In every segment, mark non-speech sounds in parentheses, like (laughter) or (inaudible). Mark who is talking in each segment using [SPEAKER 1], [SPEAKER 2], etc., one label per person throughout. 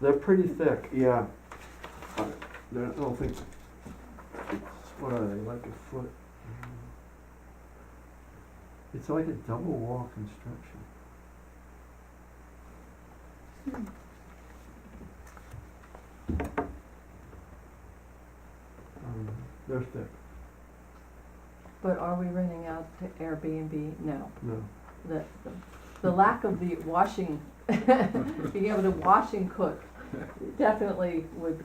[SPEAKER 1] They're pretty thick.
[SPEAKER 2] Yeah. Uh, they're- I don't think, it's- what are they, like a foot?
[SPEAKER 1] Mm-hmm. It's like a double wall construction. Hmm. Um, They're thick,
[SPEAKER 3] But are we renting out to Airbnb? No.
[SPEAKER 1] no.
[SPEAKER 3] The, the, the lack of the washing, (laughs) being able to wash and cook definitely would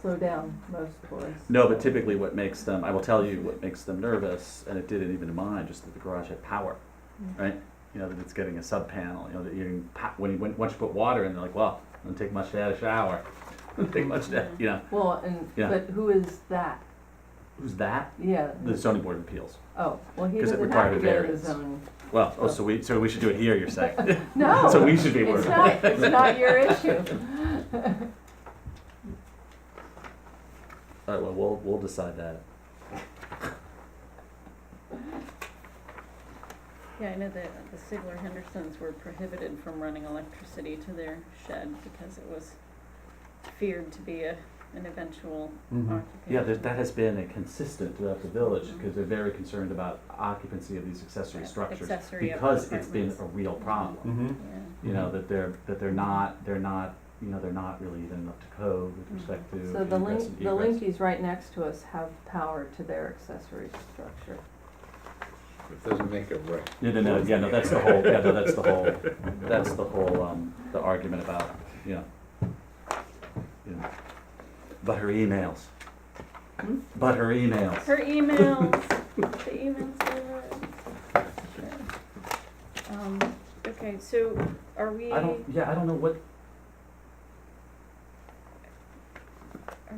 [SPEAKER 3] slow down most tourists.
[SPEAKER 4] No, but typically what makes them, I will tell you what makes them nervous, and it did it even to mine, just that the garage had power,
[SPEAKER 3] Mm.
[SPEAKER 4] right? You know, that it's getting a sub panel, you know, that you can, pa- when you, when, once you put water in, they're like, well, it doesn't take much to add a shower. (laughs) Doesn't
[SPEAKER 5] Mm-hmm.
[SPEAKER 4] take much to, you know,
[SPEAKER 3] Well, and,
[SPEAKER 4] Yeah.
[SPEAKER 3] but who is that?
[SPEAKER 5] Mm-hmm.
[SPEAKER 4] who's that?
[SPEAKER 3] Yeah.
[SPEAKER 4] The zoning board of appeals.
[SPEAKER 3] Oh, well, he
[SPEAKER 4] 'Cause it
[SPEAKER 3] doesn't have
[SPEAKER 4] required
[SPEAKER 3] to go
[SPEAKER 4] a
[SPEAKER 3] to the
[SPEAKER 4] variance. (laughs)
[SPEAKER 3] zone.
[SPEAKER 4] Well, oh, so we, so we should do it here,
[SPEAKER 5] (laughs)
[SPEAKER 4] you're saying?
[SPEAKER 3] No.
[SPEAKER 4] So we should be worried
[SPEAKER 3] It's
[SPEAKER 4] about
[SPEAKER 3] not, it's not your
[SPEAKER 4] (laughs)
[SPEAKER 3] issue.
[SPEAKER 4] All right, well, we'll, we'll decide that.
[SPEAKER 5] Yeah, I know that the Sigler Hendersons were prohibited from running electricity to their shed because it was feared to be a, an eventual
[SPEAKER 1] Mhm.
[SPEAKER 5] occupation.
[SPEAKER 4] Mm-hmm. Yeah, that, that has been a consistent throughout the village,
[SPEAKER 5] Mm-hmm.
[SPEAKER 4] because they're very concerned about occupancy of these accessory
[SPEAKER 5] Yeah,
[SPEAKER 4] structures.
[SPEAKER 5] accessory
[SPEAKER 4] Because it's been
[SPEAKER 5] apartments.
[SPEAKER 4] a real problem.
[SPEAKER 1] Mm-hmm.
[SPEAKER 5] Yeah.
[SPEAKER 4] you know, that they're, that they're not, they're not, you know, they're not really even up to code with respect to
[SPEAKER 3] So the
[SPEAKER 4] ingress
[SPEAKER 3] link,
[SPEAKER 4] and
[SPEAKER 3] the
[SPEAKER 4] egress.
[SPEAKER 3] Linkies right next to us have power to their accessory structure.
[SPEAKER 6] It doesn't make it right.
[SPEAKER 4] No, no, no, yeah, no, that's the whole, yeah, no, that's the whole, that's the whole, um, the argument about, you know. you know, But her emails.
[SPEAKER 3] Hmm?
[SPEAKER 4] But her emails.
[SPEAKER 5] Her emails, the emails are, sure. Um, okay, so are we,
[SPEAKER 4] I
[SPEAKER 5] are
[SPEAKER 4] don't, yeah, I don't know what,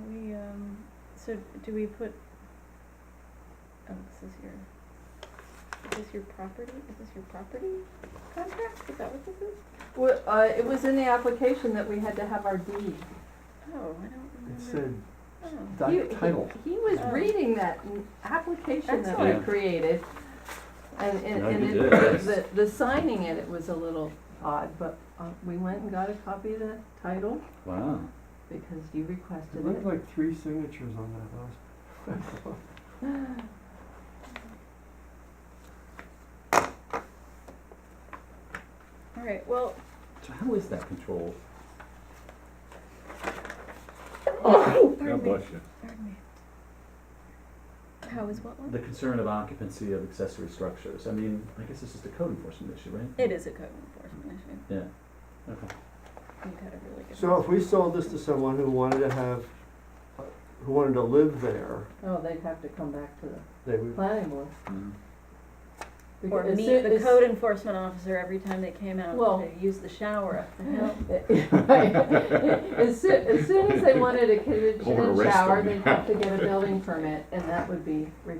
[SPEAKER 5] we, um, so do we put, oh, this is your, is this your property, is this your property contract? Is that what this is?
[SPEAKER 3] Well, uh, it was in the application that we had to have our deed.
[SPEAKER 5] Oh, I don't
[SPEAKER 1] It
[SPEAKER 5] remember.
[SPEAKER 1] said
[SPEAKER 5] Oh.
[SPEAKER 1] doc
[SPEAKER 3] He- he-
[SPEAKER 1] title.
[SPEAKER 3] He was
[SPEAKER 5] Oh.
[SPEAKER 3] reading that n- application that we
[SPEAKER 4] Excellent.
[SPEAKER 3] created. And, and,
[SPEAKER 4] No, you
[SPEAKER 3] and
[SPEAKER 4] did,
[SPEAKER 3] it-
[SPEAKER 4] yes.
[SPEAKER 3] the, the signing in it was a little odd, but, uh, we went and got a copy of the title
[SPEAKER 4] wow,
[SPEAKER 3] because you
[SPEAKER 1] It
[SPEAKER 3] requested
[SPEAKER 1] looked
[SPEAKER 3] it.
[SPEAKER 1] like three signatures on that last
[SPEAKER 5] All right, well,
[SPEAKER 4] so how is that controlled?
[SPEAKER 6] God
[SPEAKER 5] pardon me,
[SPEAKER 6] bless you.
[SPEAKER 5] pardon me. How is what one?
[SPEAKER 4] The concern of occupancy of accessory structures, I mean, I guess this is the code enforcement issue, right?
[SPEAKER 5] It is a code enforcement issue.
[SPEAKER 4] Yeah, okay.
[SPEAKER 5] You've had a really good.
[SPEAKER 1] So if we sold this to someone who wanted to have, who wanted to live there,
[SPEAKER 3] Oh, they'd have to come back to the
[SPEAKER 1] they would,
[SPEAKER 3] planning board.
[SPEAKER 4] Mm.
[SPEAKER 3] Beca-
[SPEAKER 5] Or
[SPEAKER 3] as
[SPEAKER 5] meet
[SPEAKER 3] soon-
[SPEAKER 5] the
[SPEAKER 3] as-
[SPEAKER 5] code enforcement officer every time they came out
[SPEAKER 3] Well-
[SPEAKER 5] to use the shower up the (laughs) hill.
[SPEAKER 3] As soon, as soon as they wanted a kitchen
[SPEAKER 6] Or
[SPEAKER 3] and
[SPEAKER 6] arrest
[SPEAKER 3] shower,
[SPEAKER 6] them.
[SPEAKER 3] they'd have to get a building permit, and that would be re-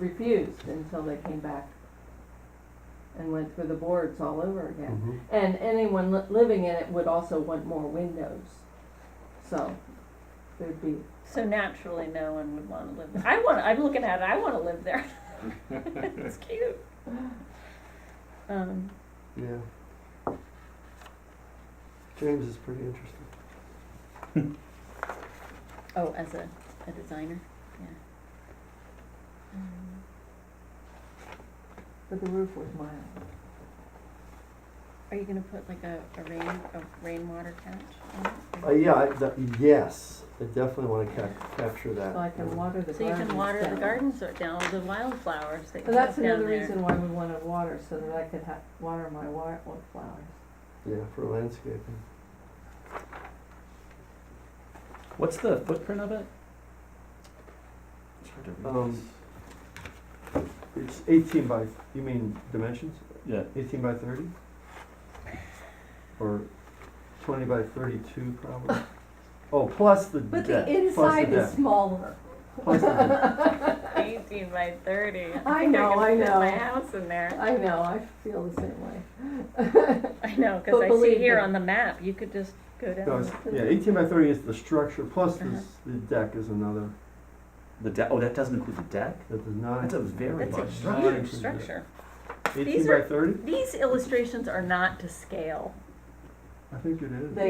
[SPEAKER 3] refused until they came back and went through the boards all over again.
[SPEAKER 1] Mhm.
[SPEAKER 3] And anyone li- living in it would also want more windows, so there'd be,
[SPEAKER 5] So naturally, no one would wanna live there. I wanna, I'm looking at it, I wanna live there. (laughs) It's cute. Um,
[SPEAKER 1] yeah. James is pretty interesting.
[SPEAKER 5] oh, as a, a designer, yeah. Um,
[SPEAKER 3] but the roof was mild.
[SPEAKER 5] Are you gonna put like a, a rain, a rainwater catch
[SPEAKER 1] Uh,
[SPEAKER 5] on it?
[SPEAKER 1] yeah, I, that, yes, I definitely wanna cap- capture that.
[SPEAKER 3] So I can water the gardens
[SPEAKER 5] So you can water the
[SPEAKER 3] down.
[SPEAKER 5] gardens or down, the wildflowers that you
[SPEAKER 3] And
[SPEAKER 5] have
[SPEAKER 3] that's
[SPEAKER 5] down
[SPEAKER 3] another
[SPEAKER 5] there.
[SPEAKER 3] reason why we wanted water, so that I could ha- water my wa- flowers.
[SPEAKER 1] Yeah, for landscaping.
[SPEAKER 4] What's the footprint of it? It's hard to read
[SPEAKER 1] Um,
[SPEAKER 4] this.
[SPEAKER 1] It's eighteen by, you mean dimensions?
[SPEAKER 4] Yeah,
[SPEAKER 1] Eighteen by thirty? Or twenty by thirty-two
[SPEAKER 3] (laughs)
[SPEAKER 1] probably? Oh, plus the
[SPEAKER 3] But the
[SPEAKER 1] deck, plus the
[SPEAKER 3] inside is
[SPEAKER 1] deck,
[SPEAKER 3] smaller. (laughs)
[SPEAKER 1] plus the deck.
[SPEAKER 5] Eighteen by thirty. (laughs)
[SPEAKER 3] I
[SPEAKER 5] think
[SPEAKER 3] know,
[SPEAKER 5] could
[SPEAKER 3] I
[SPEAKER 5] fit
[SPEAKER 3] know.
[SPEAKER 5] My house in there.
[SPEAKER 3] I know, I feel the same way.
[SPEAKER 5] I know,
[SPEAKER 3] But
[SPEAKER 5] cause I see
[SPEAKER 3] believe
[SPEAKER 5] here
[SPEAKER 3] me.
[SPEAKER 5] on the map, you could just go down.
[SPEAKER 1] No, it's,
[SPEAKER 5] the-
[SPEAKER 1] yeah, eighteen by thirty is the structure, plus
[SPEAKER 5] Uh-huh.
[SPEAKER 1] this, the deck is another,
[SPEAKER 4] the deck, oh, that doesn't include the deck?
[SPEAKER 1] that does not.
[SPEAKER 4] That's a very
[SPEAKER 5] That's
[SPEAKER 4] large
[SPEAKER 5] a
[SPEAKER 4] structure.
[SPEAKER 5] huge structure.
[SPEAKER 1] Eighteen
[SPEAKER 5] These
[SPEAKER 1] by
[SPEAKER 5] are-
[SPEAKER 1] thirty?
[SPEAKER 5] These illustrations are not to scale.
[SPEAKER 1] I think it is.
[SPEAKER 3] They